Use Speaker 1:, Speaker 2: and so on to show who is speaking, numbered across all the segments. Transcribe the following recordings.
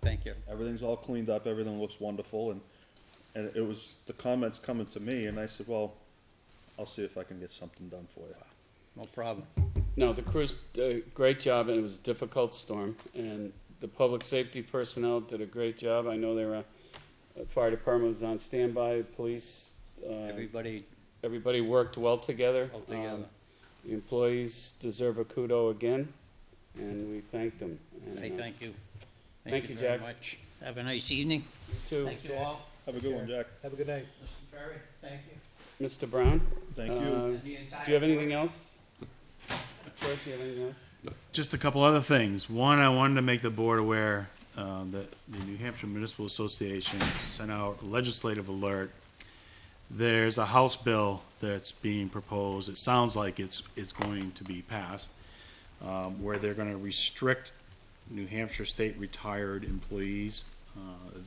Speaker 1: Thank you.
Speaker 2: Everything's all cleaned up, everything looks wonderful, and, and it was the comments coming to me, and I said, well, I'll see if I can get something done for you.
Speaker 1: No problem.
Speaker 3: No, the crews did a great job, and it was a difficult storm. And the public safety personnel did a great job. I know they were, uh, fire department was on standby, police, uh,
Speaker 1: Everybody,
Speaker 3: everybody worked well together.
Speaker 1: Well together.
Speaker 3: Um, The employees deserve a kudo again, and we thank them. And,
Speaker 1: I
Speaker 3: uh,
Speaker 1: thank you.
Speaker 3: Thank you,
Speaker 1: very
Speaker 3: Jack.
Speaker 1: much. Have a nice evening.
Speaker 3: you too.
Speaker 1: Thank you all.
Speaker 2: Have a good one, Jack.
Speaker 4: Have a good night.
Speaker 1: Mr. Perry, thank you.
Speaker 3: Mr. Brown?
Speaker 2: Thank
Speaker 3: uh,
Speaker 2: you.
Speaker 3: Do you have anything else? George, do you have anything else?
Speaker 5: just a couple other things. One, I wanted to make the board aware uh, that the New Hampshire Municipal Association sent out a legislative alert. There's a House bill that's being proposed. It sounds like it's it's going to be passed, um, where they're going to restrict New Hampshire state retired employees. Uh,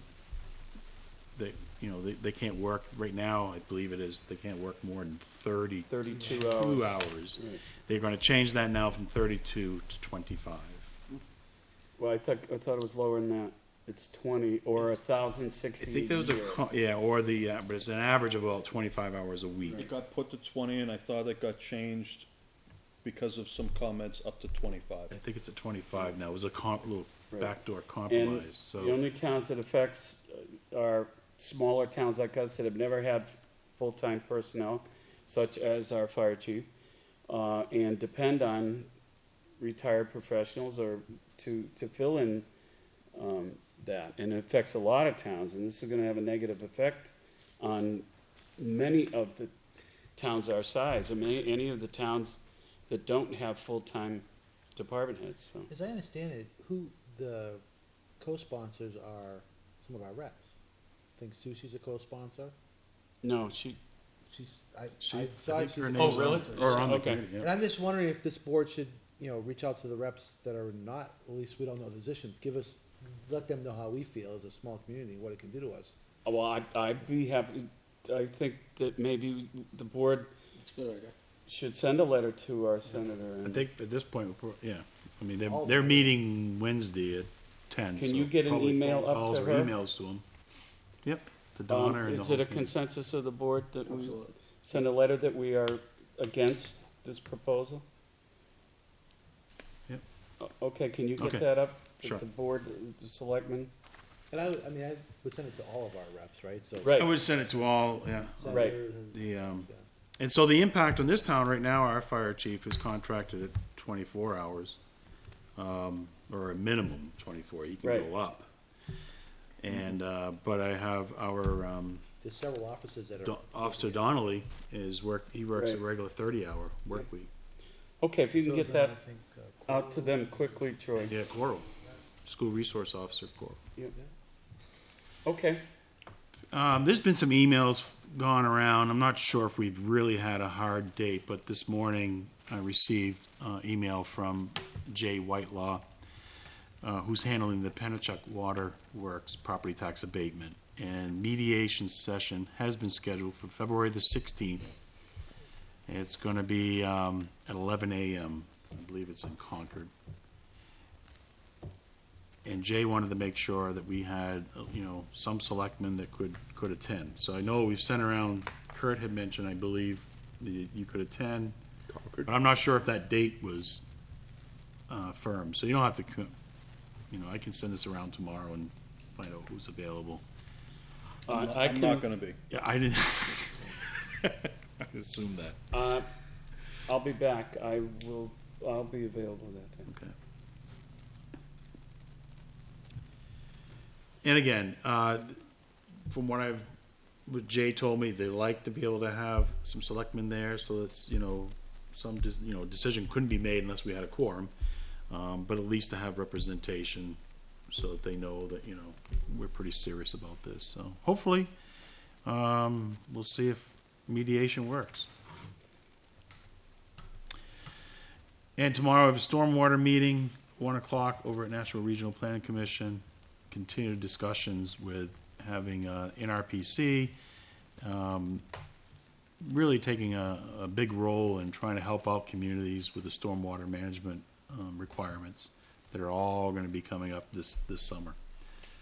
Speaker 5: that you know they, they can't work right now. I believe it is they can't work more than thirty
Speaker 3: Thirty-two
Speaker 5: two
Speaker 3: hours.
Speaker 5: hours.
Speaker 3: Right.
Speaker 5: They're gonna change that now from thirty-two to twenty-five.
Speaker 3: Well, I thought, I thought it was lower than that. It's twenty, or a thousand
Speaker 5: I
Speaker 3: sixty a
Speaker 5: think there was a,
Speaker 3: year.
Speaker 5: co- yeah, or the, uh, but it's an average of about twenty-five hours a
Speaker 2: It
Speaker 5: week.
Speaker 2: got put to twenty, and I thought it got changed because of some comments up to
Speaker 5: I
Speaker 2: twenty-five.
Speaker 5: think it's at twenty-five now. It was a comp, little
Speaker 3: Right.
Speaker 5: backdoor
Speaker 3: And
Speaker 5: compromise,
Speaker 3: The
Speaker 5: so.
Speaker 3: only towns it affects uh, are smaller towns like us that have never had full-time personnel, such as our fire chief, uh, and depend on retired professionals or to, to fill in, um, that. And it affects a lot of towns, and this is gonna have a negative effect on many of the towns our size, I mean, any of the towns that don't have full-time department heads, so.
Speaker 4: As I understand it, who the co-sponsors are some of our reps. I think Susie's a co-sponsor.
Speaker 3: No, she,
Speaker 4: She's, I,
Speaker 5: She-
Speaker 4: I
Speaker 5: I
Speaker 4: thought
Speaker 5: think
Speaker 4: she's.
Speaker 5: her
Speaker 4: a
Speaker 5: name's
Speaker 3: Oh, really?
Speaker 4: co-sponsor.
Speaker 5: Or on the
Speaker 3: Okay.
Speaker 5: committee, yeah.
Speaker 4: And I'm just wondering if this board should, you know, reach out to the reps that are not, at least we don't know the position, give us, let them know how we feel as a small community, what it can do to us.
Speaker 3: Well, I'd, I'd be happy, I think that maybe the board should send a letter to our senator.
Speaker 5: I
Speaker 3: and-
Speaker 5: think at this point, we're pro- yeah, I mean, they're,
Speaker 4: All
Speaker 5: they're
Speaker 4: the-
Speaker 5: meeting Wednesday at ten.
Speaker 3: Can
Speaker 5: so
Speaker 3: you get an
Speaker 5: probably
Speaker 3: email up
Speaker 5: calls
Speaker 3: to
Speaker 5: or
Speaker 3: her?
Speaker 5: Emails to them. Yep, to
Speaker 3: Um,
Speaker 5: Donna and the
Speaker 3: Is
Speaker 5: whole
Speaker 3: it a
Speaker 5: team.
Speaker 3: consensus of the board that we send a letter that we are against this proposal?
Speaker 5: Yep.
Speaker 3: O- Okay, can you
Speaker 5: Okay.
Speaker 3: get that up? that
Speaker 5: Sure.
Speaker 3: The board, the selectmen?
Speaker 4: And I, would- I mean, I would send it to all of our reps, right? So
Speaker 5: I
Speaker 3: Right,
Speaker 5: would send it to all, yeah,
Speaker 3: right.
Speaker 4: senators and-
Speaker 5: the, um,
Speaker 4: Yeah.
Speaker 5: And so the impact on this town right now, our fire chief is contracted at twenty-four hours, um, or a minimum twenty-four, he can
Speaker 3: Right.
Speaker 5: go up. And, uh, but I have our, um,
Speaker 4: There's several offices that are.
Speaker 5: Don- Officer Donnelly is work, he works a
Speaker 3: Right.
Speaker 5: regular thirty-hour work week.
Speaker 3: Okay, if you can
Speaker 4: So
Speaker 3: get
Speaker 4: then
Speaker 3: that
Speaker 4: I think, uh,
Speaker 3: out to them quickly, Troy.
Speaker 5: Yeah, Coral, school resource officer, Coral.
Speaker 3: Okay,
Speaker 5: Um, there's been some emails gone around. I'm not sure if we've really had a hard date, but this morning I received uh, email from Jay Whitelaw, uh, who's handling the Pennachuck Water Works property tax abatement. And mediation session has been scheduled for February the 16th. It's going to be um, at 11 a.m. I believe it's in Concord. And Jay wanted to make sure that we had, uh, you know, some selectmen that could, could attend. So I know we've sent around, Kurt had mentioned, I believe, that you you could attend. But I'm not sure if that date was, uh, firm, so you don't have to, co- you know, I can send this around tomorrow and find out who's available.
Speaker 2: I'm
Speaker 3: I
Speaker 2: not-
Speaker 3: Uh, I
Speaker 2: I'm not
Speaker 3: can,
Speaker 2: gonna be.
Speaker 5: Yeah, I didn't. I assumed that.
Speaker 3: uh, I'll be back. I will, I'll be available that time.
Speaker 5: Okay. And again, uh, from what I've, what Jay told me, they like to be able to have some selectmen there, so it's, you know, some, dis- you know, decision couldn't be made unless we had a quorum, um, but at least to have representation, so that they know that, you know, we're pretty serious about this, so hopefully, um, we'll see if mediation works. And tomorrow, we have a stormwater meeting, one o'clock, over at National Regional Planning Commission. Continued discussions with having uh, NRPC, um, really taking a, a big role in trying to help out communities with the stormwater management um, requirements that are all going to be coming up this, this summer.